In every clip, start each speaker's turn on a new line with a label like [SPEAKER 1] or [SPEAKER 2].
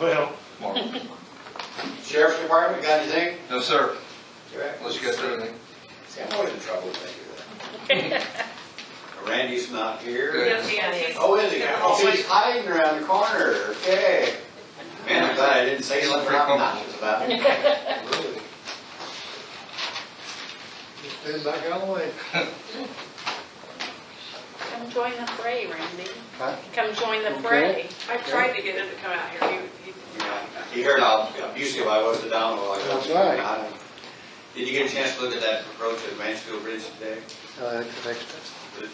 [SPEAKER 1] Well,
[SPEAKER 2] Mark?
[SPEAKER 3] Sheriff's Department, got anything?
[SPEAKER 2] No, sir.
[SPEAKER 3] Jack?
[SPEAKER 2] Unless you got anything.
[SPEAKER 3] See, I'm always in trouble with that. Randy's not here.
[SPEAKER 2] Good.
[SPEAKER 4] Yes, yes.
[SPEAKER 3] Oh, is he? Oh, he's hiding around the corner, okay. Man, I'm glad I didn't say something obnoxious about him.
[SPEAKER 5] Really? Just been back out of the way.
[SPEAKER 6] Come join the fray, Randy.
[SPEAKER 5] Huh?
[SPEAKER 6] Come join the fray.
[SPEAKER 4] I tried to get him to come out here, he, he did not.
[SPEAKER 3] He heard how abusive I was to Donald while I was.
[SPEAKER 5] That's right.
[SPEAKER 3] I- Did you get a chance to look at that approach at Mansfield Bridge today?
[SPEAKER 5] Uh, it's next to-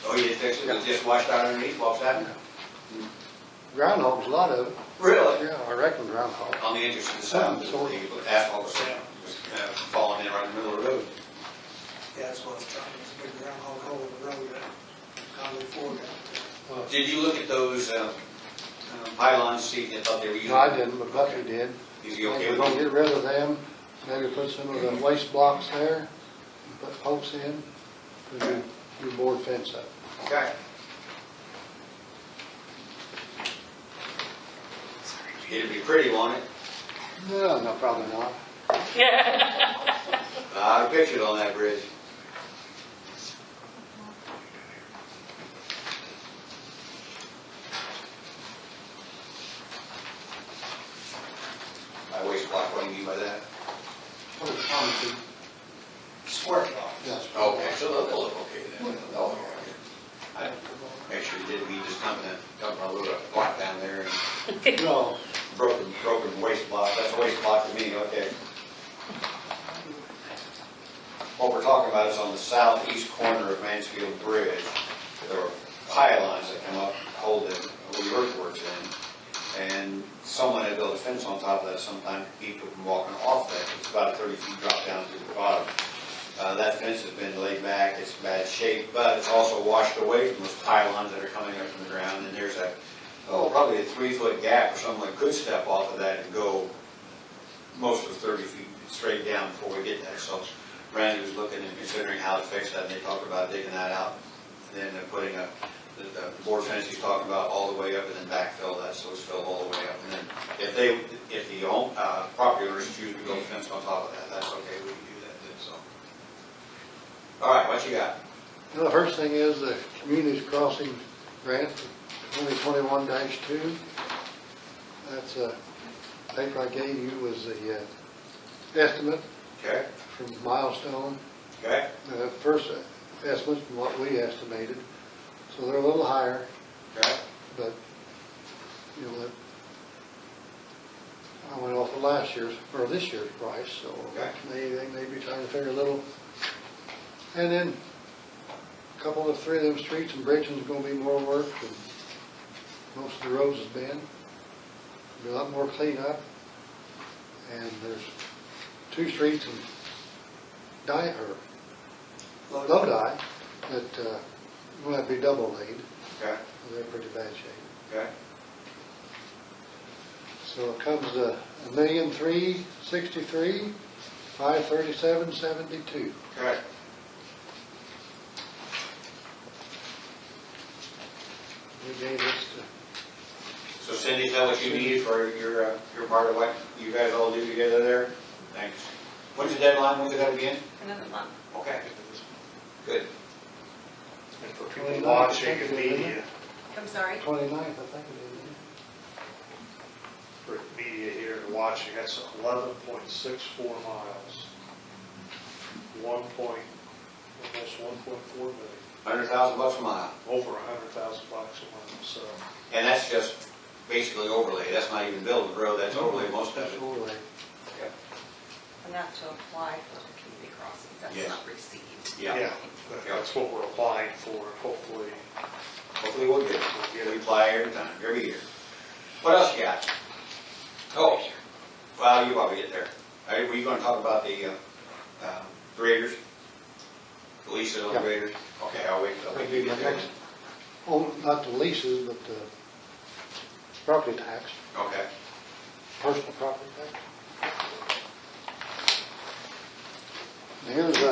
[SPEAKER 3] Oh, you fixed it, it was just washed out underneath Walsh Avenue?
[SPEAKER 5] Groundhogs, a lot of them.
[SPEAKER 3] Really?
[SPEAKER 5] Yeah, I reckon groundhog.
[SPEAKER 3] On the entrance to the south,
[SPEAKER 5] Some sort.
[SPEAKER 3] the asphalt was down, was uh, falling in right in the middle of the road.
[SPEAKER 7] Yeah, that's what I was trying to figure out, how old the road is, how they forward it.
[SPEAKER 3] Did you look at those um, um, pylons, see if they thought they were using?
[SPEAKER 5] No, I didn't, but Bucky did.
[SPEAKER 3] Is he okay
[SPEAKER 5] We're
[SPEAKER 3] with
[SPEAKER 5] gonna
[SPEAKER 3] it?
[SPEAKER 5] get rid of them, maybe put some of the waste blocks there, put posts in, put your, your board fence up.
[SPEAKER 3] Okay. It'd be pretty, won't it?
[SPEAKER 5] No, no, probably not.
[SPEAKER 3] I had a picture on that bridge. My waste block, what do you mean by that?
[SPEAKER 5] Put a concrete,
[SPEAKER 3] Square block.
[SPEAKER 5] yes.
[SPEAKER 3] Okay, so they'll they'll look okay then. Oh, yeah, okay. I make sure you did, we just dumped that, dumped a little block down there and
[SPEAKER 5] No,
[SPEAKER 3] broken, broken waste block, that's a waste block to me, okay. What we're talking about is on the southeast corner of Mansfield Bridge, there are pylons that come up, hold the, hold the earthworks in, and someone had built a fence on top of that sometime to keep people from walking off that, it's about a thirty feet drop down to the bottom. Uh, that fence has been laid back, it's in bad shape, but it's also washed away from those pylons that are coming up from the ground, and there's a oh, probably a three-foot gap, where someone could step off of that and go most of 30 feet straight down before we get there. So Randy was looking and considering how to fix that, and they talked about digging that out, and then they're putting a, the the board fence he's talking about all the way up, and then backfill that, so it's filled all the way up. And then if they, if the own- uh, property owners choose to build a fence on top of that, that's okay, we can do that, then, so. All right, what you got?
[SPEAKER 5] The first thing is the communities crossing grant, twenty twenty-one two. That's a paper I gave you was the uh, estimate
[SPEAKER 3] Okay,
[SPEAKER 5] from Milestone.
[SPEAKER 3] okay?
[SPEAKER 5] The first estimate from what we estimated, so they're a little higher,
[SPEAKER 3] Okay.
[SPEAKER 5] but, you know, that- I went off of last year's, or this year's price, so
[SPEAKER 3] Okay.
[SPEAKER 5] they, they may be trying to figure a little. And then a couple of, three of them streets and bridges is gonna be more work than most of the roads has been. Be a lot more cleanup. And there's two streets in Di, or Lodi that, uh, will have to be double laid.
[SPEAKER 3] Okay,
[SPEAKER 5] They're in pretty bad shape.
[SPEAKER 3] okay,
[SPEAKER 5] So it comes to a million three sixty-three, five thirty-seven seventy-two.
[SPEAKER 3] okay.
[SPEAKER 5] We gave this to,
[SPEAKER 3] So Cindy, is that what you need for your, uh, your part of what you guys all do together there? Thanks. When's the deadline, when's that again?
[SPEAKER 4] Another month.
[SPEAKER 3] Okay. Good.
[SPEAKER 1] and for people watching and media,
[SPEAKER 4] I'm sorry?
[SPEAKER 5] twenty-ninth, I think it
[SPEAKER 1] for media here and watching, that's eleven point six four miles. One point, almost one point four million,
[SPEAKER 3] Hundred thousand bucks a mile.
[SPEAKER 1] over a hundred thousand bucks a month, so.
[SPEAKER 3] And that's just basically overlay, that's not even building the road, that's overlay most
[SPEAKER 5] is.
[SPEAKER 3] of
[SPEAKER 5] That's
[SPEAKER 3] it.
[SPEAKER 5] all right.
[SPEAKER 4] And not to apply for the community crossings,
[SPEAKER 3] Yes.
[SPEAKER 4] that's not received.
[SPEAKER 3] Yeah.
[SPEAKER 1] that- That's what we're applying for, and hopefully.
[SPEAKER 3] Hopefully we'll get it.
[SPEAKER 1] we'll
[SPEAKER 3] We
[SPEAKER 1] get it.
[SPEAKER 3] apply every time, every year. What else you got? Oh, well, you probably get there. Are, were you gonna talk about the, uh, um, graders? The leases on
[SPEAKER 5] Yeah.
[SPEAKER 3] graders? Okay, I'll wait, I'll wait till you get there.
[SPEAKER 5] Next. Oh, not the leases, but the property tax,
[SPEAKER 3] Okay.
[SPEAKER 5] personal property tax. Here's uh, a